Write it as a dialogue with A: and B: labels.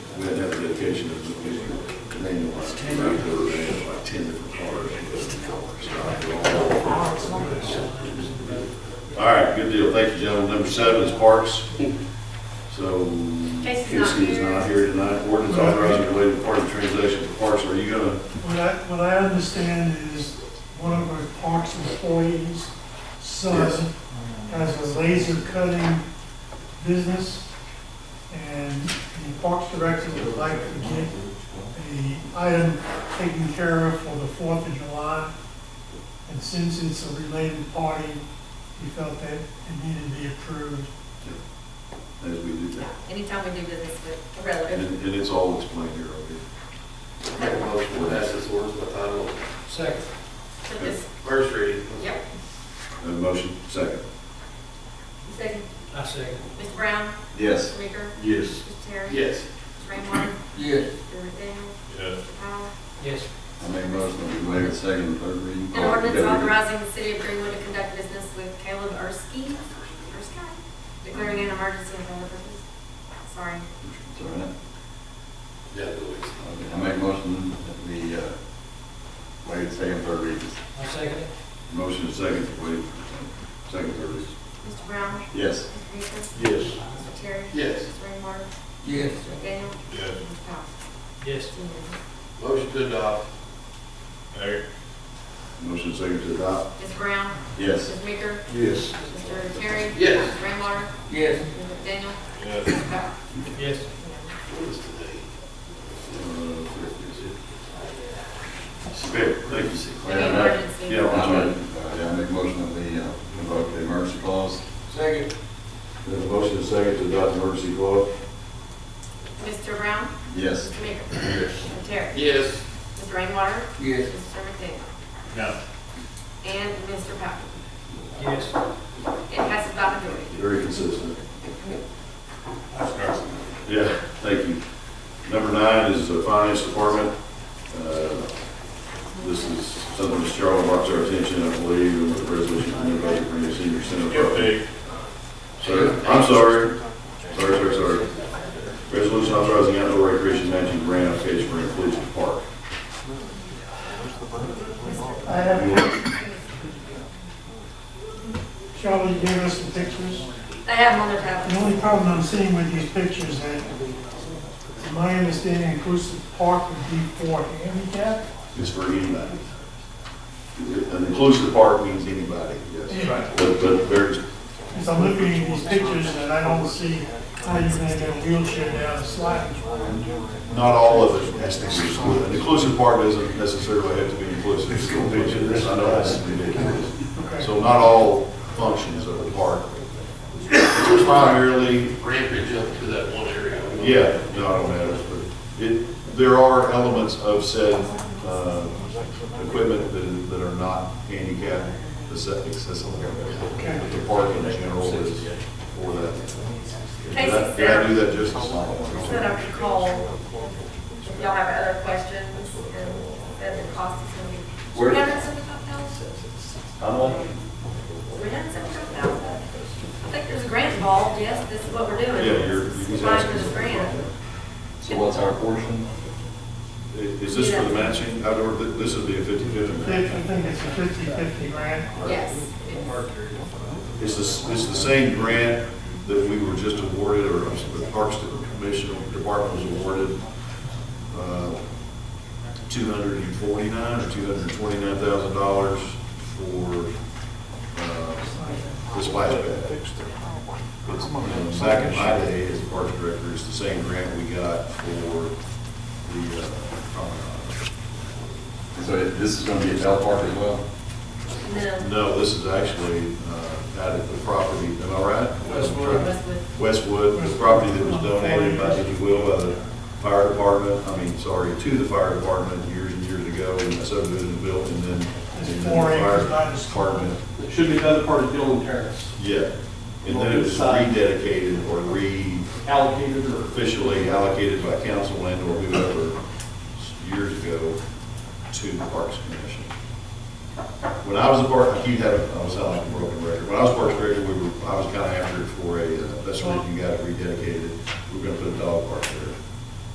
A: application is a manual, like, manual, like ten different cars. All right, good deal, thank you, gentlemen. Number seven is parks. So,
B: Casey's not
A: Casey is
B: here.
A: not here tonight. Ordinance authorizing related party transaction for parks, are you gonna?
C: What I, what I understand is one of our parks employees'
A: Yes.
C: son has a laser cutting business, and the parks director would like to get the item taken care of for the Fourth of July. And since it's a related party, he felt that it needed to be approved.
A: As we do
B: Yeah,
A: that.
B: anytime we do business with a
A: And,
B: relative.
A: and it's all explained here, okay?
D: Make a motion to pass this ordinance by title only.
C: Second.
B: So this,
D: First reading.
B: yep,
A: Have a motion, second.
B: you second.
E: I second.
B: Mr. Brown?
A: Yes.
B: Mr. Meeker?
A: Yes.
B: Mr. Terry?
D: Yes.
B: Mr. Raymar?
F: Yes.
B: Mr. McDaniel?
D: Yes.
B: Mr. Powell?
E: Yes.
F: I made a motion to waive the second and third reading.
B: An ordinance authorizing the city of Greenwood to conduct business with Caleb Erskine, Erskine, declaring an emergency and other purposes. Sorry.
F: It's all right.
D: Yeah, Louise.
F: I make a motion that we, uh, waive the second and third readings.
E: I second it.
A: Motion is second, wait, second, third reading.
B: Mr. Brown?
F: Yes.
B: Mr. Meeker?
A: Yes.
B: Mr. Terry?
D: Yes.
B: Mr. Raymar?
F: Yes.
B: Mr. McDaniel?
D: Yes.
B: Mr. Powell?
E: Yes.
B: It's unanimous.
D: Motion to adopt.
A: Motion second to adopt.
B: Mr. Brown?
F: Yes.
B: Mr. Meeker?
A: Yes.
B: Mr. Terry?
D: Yes.
B: Mr. Raymar?
F: Yes.
B: Mr. McDaniel? Mr. Powell?
E: Yes.
D: What is today?
A: Uh, Okay, thank you.
B: Any emergency?
A: Yeah.
F: I make, uh, I make a motion that we, uh, invoke the emergency clause.
D: Second.
A: There's a motion is second to adopt emergency clause.
B: Mr. Brown?
F: Yes.
B: Mr. Maker? Mr. Terry?
D: Yes.
B: Mr. Rainwater?
F: Yes.
B: Mr. McDaniel?
D: No.
B: And Mr. Powell?
E: Yes.
B: It passes by majority.
A: Very consistent. Yeah, thank you. Number nine is the finance department. Uh, This is something Ms. Charles brought to our attention, I believe, and with the resolution to innovate for your senior center. program. Sir, I'm sorry. Sorry, sorry, sorry. Resolution authorizing outdoor recreation matching grant application for inclusion park.
C: I have, Charlie gave us some pictures.
B: They have them on their
C: The
B: tablet.
C: only problem I'm seeing with these pictures that, to my understanding, inclusive park would be for handicap.
A: It's for anybody. An inclusive park means anybody, yes.
C: Right.
A: But, but there's,
C: As I'm looking at these pictures and I don't see how you're gonna get a wheelchair down the slide.
A: Not all of it has to be excluded. The Inclusive part doesn't necessarily have to be inclusive. I know that's ridiculous.
C: Okay.
A: So not all functions of the park. It's Primarily,
D: Rampage up to that one area.
A: yeah, no, it matters, but it, there are elements of said, uh, equipment that, that are not handicap accessible. But the park in general is for that. Did I- Did I do that
B: He
A: justice?
B: said I could call if y'all have other questions and that the cost is going to be. Three hundred and seventy-five thousand?
A: I'm on.
B: Three hundred and seventy-five thousand? I think there's a grant involved, yes, this is what we're doing.
A: Yeah, you're.
B: This is mine for this grant.
F: So what's our portion?
A: Is this for the matching, outdoor, th- this would be a fifty-fifty
C: I
A: match?
C: think I think it's a fifty-fifty grant.
B: Yes. it's-
A: It's the, s- it's the same grant that we were just awarded, or I'm sorry, the Parks Commission or Department was awarded, uh, two hundred and forty-nine or two hundred and twenty-nine thousand dollars for, uh, the splash pad. It's, you know, Back in my day as Parks Director, it's the same grant we got for the, uh, promenade.
F: So it- this is gonna be at Bell Park as well?
B: And then
A: No, this is actually uh, out at the property, am I right?
E: Westwood.
B: Westwood.
A: Westwood, the property that was donated by, if you will, by the fire department, I mean, sorry, to the fire department years and years ago, and that subdivision was built, and then. and then the
C: Four
A: fire
C: acres by the school.
A: Department,
G: It should be the other part of Dillon Terrace,
A: yeah. And then it was
C: uh,
A: rededicated or re,
G: allocated or
A: officially allocated by council and or whoever years ago to the Parks Commission. When I was a park, you had, I was sounding like a broken record. When I was Parks Director, we were, I was kind of after it for a, uh, that's when you got it rededicated. We We're gonna put a dog park there.